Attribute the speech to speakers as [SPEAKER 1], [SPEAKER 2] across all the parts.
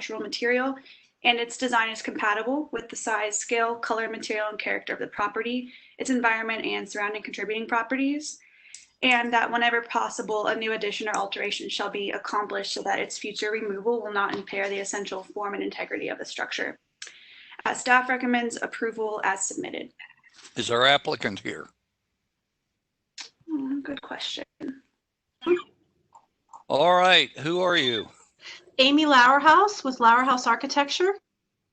[SPEAKER 1] structural material, and its design is compatible with the size, scale, color, material, and character of the property, its environment, and surrounding contributing properties. And that whenever possible, a new addition or alteration shall be accomplished so that its future removal will not impair the essential form and integrity of the structure. Uh, Staff recommends approval as submitted.
[SPEAKER 2] Is our applicant here?
[SPEAKER 1] Hmm, Good question.
[SPEAKER 2] All right, who are you?
[SPEAKER 3] Amy Lauerhouse with Lauerhouse Architecture.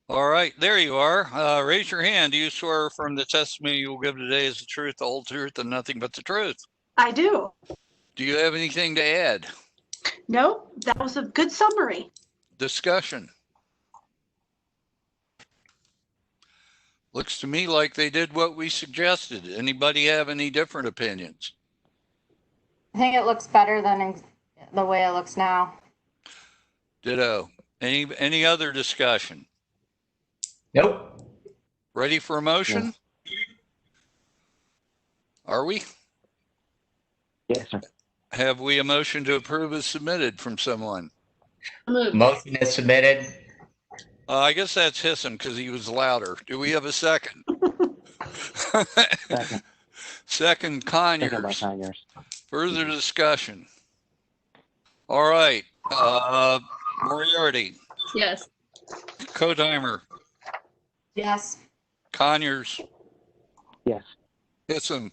[SPEAKER 2] All right, there you are. Uh, raise your hand. Do you swear from the testimony you will give today is the truth, the whole truth, and nothing but the truth?
[SPEAKER 3] I do.
[SPEAKER 2] Do you have anything to add?
[SPEAKER 3] No, that was a good summary.
[SPEAKER 2] Discussion? Looks to me like they did what we suggested. Anybody have any different opinions?
[SPEAKER 4] I think it looks better than ex- the way it looks now.
[SPEAKER 2] Ditto. Any, any other discussion?
[SPEAKER 5] Nope.
[SPEAKER 2] Ready for a motion? Are we?
[SPEAKER 5] Yes, sir.
[SPEAKER 2] Have we a motion to approve as submitted from someone?
[SPEAKER 5] Motion is submitted.
[SPEAKER 2] Uh, I guess that's Hissam because he was louder. Do we have a second?
[SPEAKER 6] Second,
[SPEAKER 2] Second
[SPEAKER 6] second by
[SPEAKER 2] Conyers.
[SPEAKER 6] Conyers.
[SPEAKER 2] Further discussion. All right, uh, Moriarty,
[SPEAKER 7] Yes.
[SPEAKER 2] Codimer,
[SPEAKER 4] Yes.
[SPEAKER 2] Conyers,
[SPEAKER 6] Yes,
[SPEAKER 2] Hissam,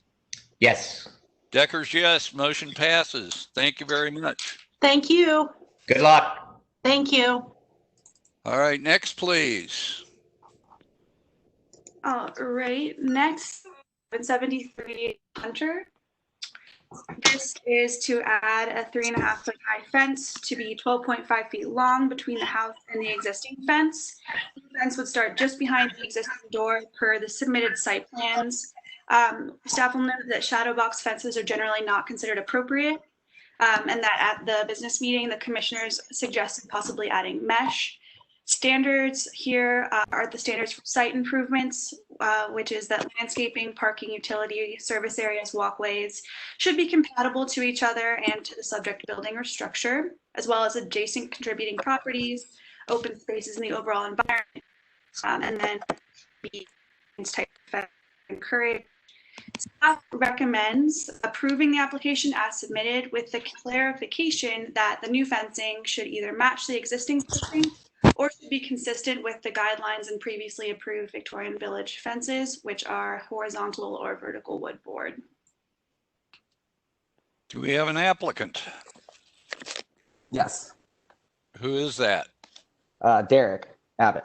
[SPEAKER 5] Yes.
[SPEAKER 2] Deckers, yes, motion passes. Thank you very much.
[SPEAKER 3] Thank you.
[SPEAKER 5] Good luck.
[SPEAKER 3] Thank you.
[SPEAKER 2] All right, next, please.
[SPEAKER 1] All right, next, 773 Hunter. This is to add a three and a half foot high fence to be 12.5 feet long between the house and the existing fence. The Fence would start just behind the existing door per the submitted site plans. Um, Staff will note that shadow box fences are generally not considered appropriate. um, And that at the business meeting, the commissioners suggested possibly adding mesh. Standards here uh, are the standards for site improvements, uh, which is that landscaping, parking, utility, service areas, walkways should be compatible to each other and to the subject building or structure, as well as adjacent contributing properties, open spaces in the overall environment. Um, And then be type of encouraged. Staff recommends approving the application as submitted with the clarification that the new fencing should either match the existing fencing or should be consistent with the guidelines and previously approved Victorian Village fences, which are horizontal or vertical wood board.
[SPEAKER 2] Do we have an applicant?
[SPEAKER 8] Yes.
[SPEAKER 2] Who is that?
[SPEAKER 8] Uh, Derek Abbott.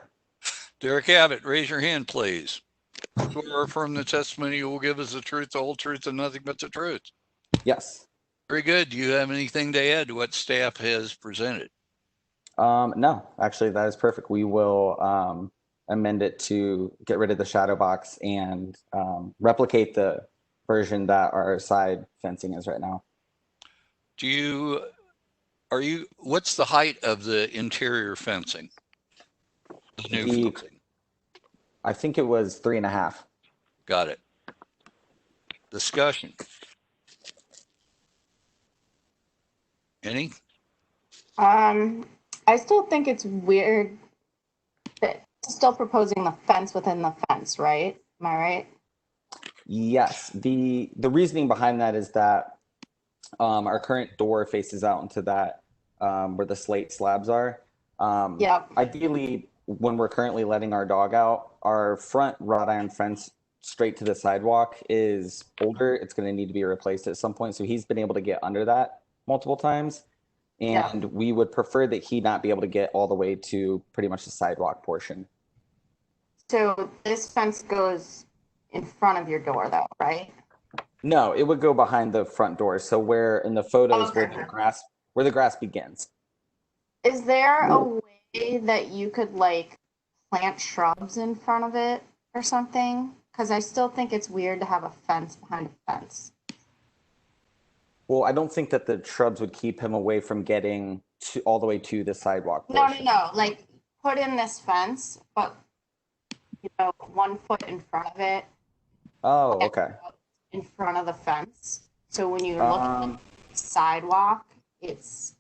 [SPEAKER 2] Derek Abbott, raise your hand, please. Swear from the testimony you will give us the truth, the whole truth, and nothing but the truth.
[SPEAKER 8] Yes.
[SPEAKER 2] Very good. Do you have anything to add to what staff has presented?
[SPEAKER 8] Um, no, actually, that is perfect. We will um, amend it to get rid of the shadow box and um, replicate the version that our side fencing is right now.
[SPEAKER 2] Do you, are you, what's the height of the interior fencing? The new
[SPEAKER 8] The-
[SPEAKER 2] fencing.
[SPEAKER 8] I think it was three and a half.
[SPEAKER 2] Got it. Discussion. Any?
[SPEAKER 4] Um, I still think it's weird that still proposing the fence within the fence, right? Am I right?
[SPEAKER 8] Yes, the the reasoning behind that is that um, our current door faces out into that um, where the slate slabs are. Um,
[SPEAKER 4] Yep.
[SPEAKER 8] ideally when we're currently letting our dog out our front wrought iron fence straight to the sidewalk is older it's going to need to be replaced at some point so he's been able to get under that multiple times
[SPEAKER 4] Yeah.
[SPEAKER 8] and we would prefer that he not be able to get all the way to pretty much the sidewalk portion
[SPEAKER 4] So this fence goes in front of your door though, right?
[SPEAKER 8] no it would go behind the front door so where in the photos where
[SPEAKER 4] Okay.
[SPEAKER 8] the grass where the grass begins
[SPEAKER 4] Is there a way that you could like plant shrubs in front of it or something? Cause I still think it's weird to have a fence behind a fence.
[SPEAKER 8] well i don't think that the shrubs would keep him away from getting to all the way to the sidewalk
[SPEAKER 4] No, no,
[SPEAKER 8] portion.
[SPEAKER 4] no, like, put in this fence, but, you know, one foot in front of it,
[SPEAKER 8] oh okay
[SPEAKER 4] in front of the fence. So when you're looking
[SPEAKER 8] Um,
[SPEAKER 4] at the sidewalk, it's,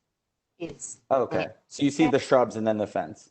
[SPEAKER 4] it's,
[SPEAKER 8] Okay, so you see the shrubs and then the fence.